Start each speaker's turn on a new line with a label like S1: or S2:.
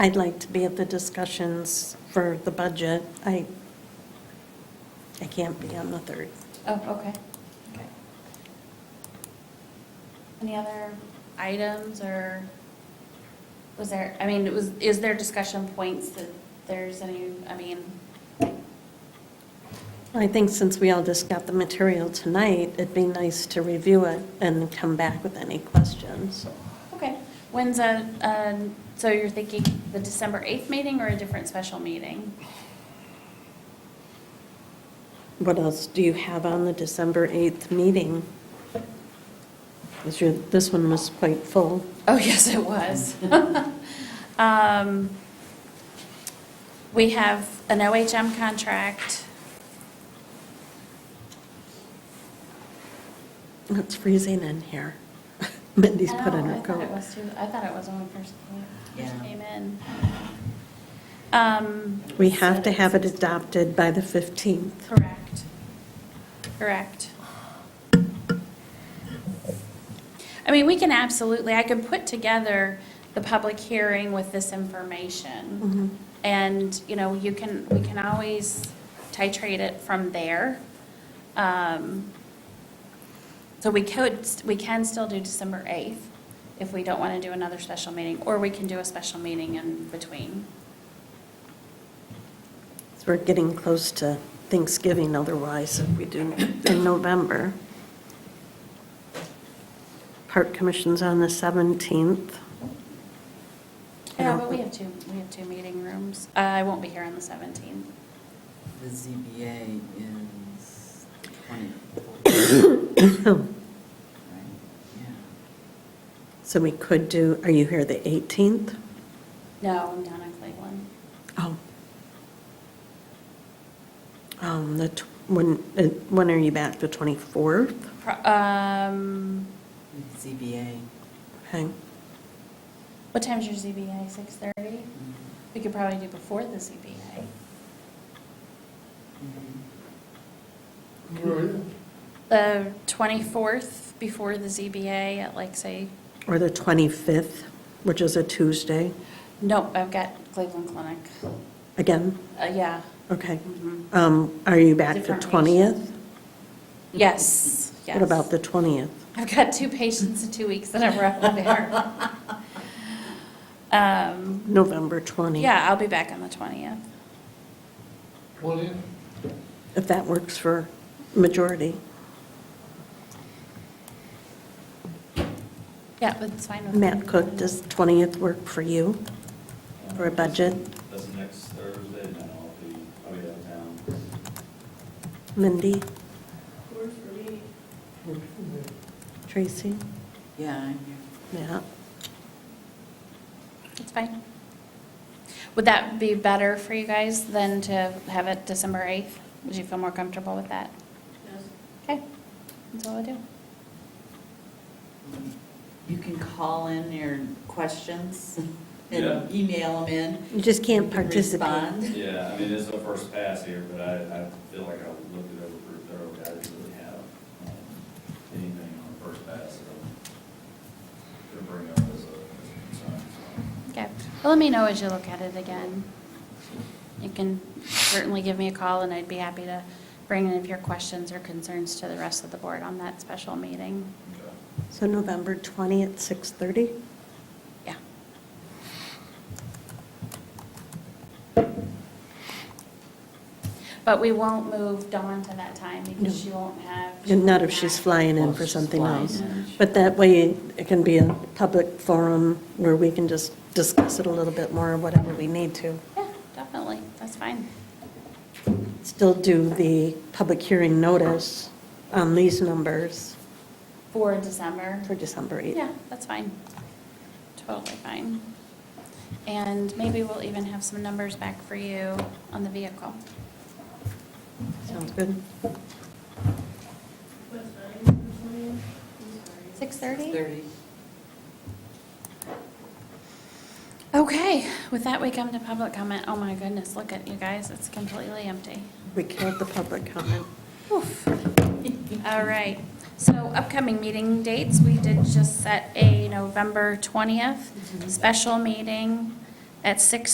S1: I'd like to be at the discussions for the budget. I, I can't be on the 3rd.
S2: Oh, okay. Okay. Any other items or was there, I mean, was, is there discussion points that there's any, I mean,
S1: I think since we all just got the material tonight, it'd be nice to review it and come back with any questions.
S2: okay. When's a, um, so you're thinking the December 8th meeting or a different special meeting?
S1: What else do you have on the December 8th meeting? Is your, this one was quite full.
S2: Oh, yes, it was. Um, We have an OHM contract.
S1: It's freezing in here. Mindy's put on her
S2: Oh, I thought it
S1: coat.
S2: was too, I thought it was when we first came- first
S3: Yeah.
S2: came in. Um,
S1: We have to have it adopted by the 15th.
S2: Correct. Correct. I mean, we can absolutely, I can put together the public hearing with this information.
S1: Mhm.
S2: And, you know, you can, we can always titrate it from there. Um, So we could, we can still do December 8th if we don't want to do another special meeting, or we can do a special meeting in between.
S1: So We're getting close to Thanksgiving otherwise if we do in November. Park Commission's on the 17th. I
S2: Yeah,
S1: don't
S2: but we
S1: think-
S2: have two, we have two meeting rooms. Uh, I won't be here on the 17th.
S3: The ZBA is twenty-four.
S1: So we could do, are you here the 18th?
S2: No, I'm down in Cleveland.
S1: Oh. Um, the, tw- when, uh, when are you back? The 24th?
S2: Pro- Um,
S3: ZBA.
S1: Okay.
S2: what time's your ZBA? 6:30?
S3: Mhm.
S2: We could probably do before the ZBA.
S3: Mhm.
S2: The 24th before the ZBA at like, say,
S1: Or the 25th, which is a Tuesday,
S2: nope, I've got Cleveland Clinic.
S1: again?
S2: Uh, yeah.
S1: Okay.
S2: mhm.
S1: Um, Are you back the
S2: Different
S1: 20th?
S2: Yes, yes.
S1: What about the 20th?
S2: I've got two patients in two weeks that I'm running there. Um,
S1: November 20th?
S2: yeah, I'll be back on the 20th.
S4: William?
S1: If that works for majority.
S2: Yeah, that's fine with me.
S1: Matt Cook, does 20th work for you? For a budget?
S5: That's next Thursday, and then I'll be, I'll be out of town.
S1: Mindy,
S4: Well,
S1: Tracy,
S3: Yeah, I'm here.
S1: Matt?
S2: That's fine. Would that be better for you guys than to have it December 8th? Would you feel more comfortable with that? Yes. Okay, that's all I do.
S3: You can call in your questions
S5: Yeah.
S3: and email them in.
S1: You just
S3: You
S1: can't
S3: can
S1: participate.
S3: respond.
S5: Yeah, I mean, it's a first pass here, but I, I feel like I looked it over pretty thoroughly, I didn't really have um, anything on the first pass that I'm gonna bring up as a, as a concern, so.
S2: Okay, well, let me know as you look at it again. You can certainly give me a call, and I'd be happy to bring any of your questions or concerns to the rest of the board on that special meeting.
S5: okay.
S1: So November 20th, 6:30?
S2: Yeah. But we won't move Dawn to that time because she won't have.
S1: And Not if she's flying in for
S3: Well, she's
S1: something
S3: flying
S1: else.
S3: in.
S1: But that way, it can be a public forum where we can just discuss it a little bit more, whatever we need to.
S2: Yeah, definitely, that's fine.
S1: Still do the public hearing notice on these numbers
S2: For December.
S1: for December 8th.
S2: Yeah, that's fine. Totally fine. And maybe we'll even have some numbers back for you on the vehicle.
S1: Sounds good.
S2: 6:30?
S3: Thirty.
S2: Okay, with that, we come to public comment. Oh my goodness, look at you guys, it's completely empty.
S1: We killed the public comment.
S2: Oof. All right, so upcoming meeting Mm-hmm. dates, we did just set a November 20th special meeting at six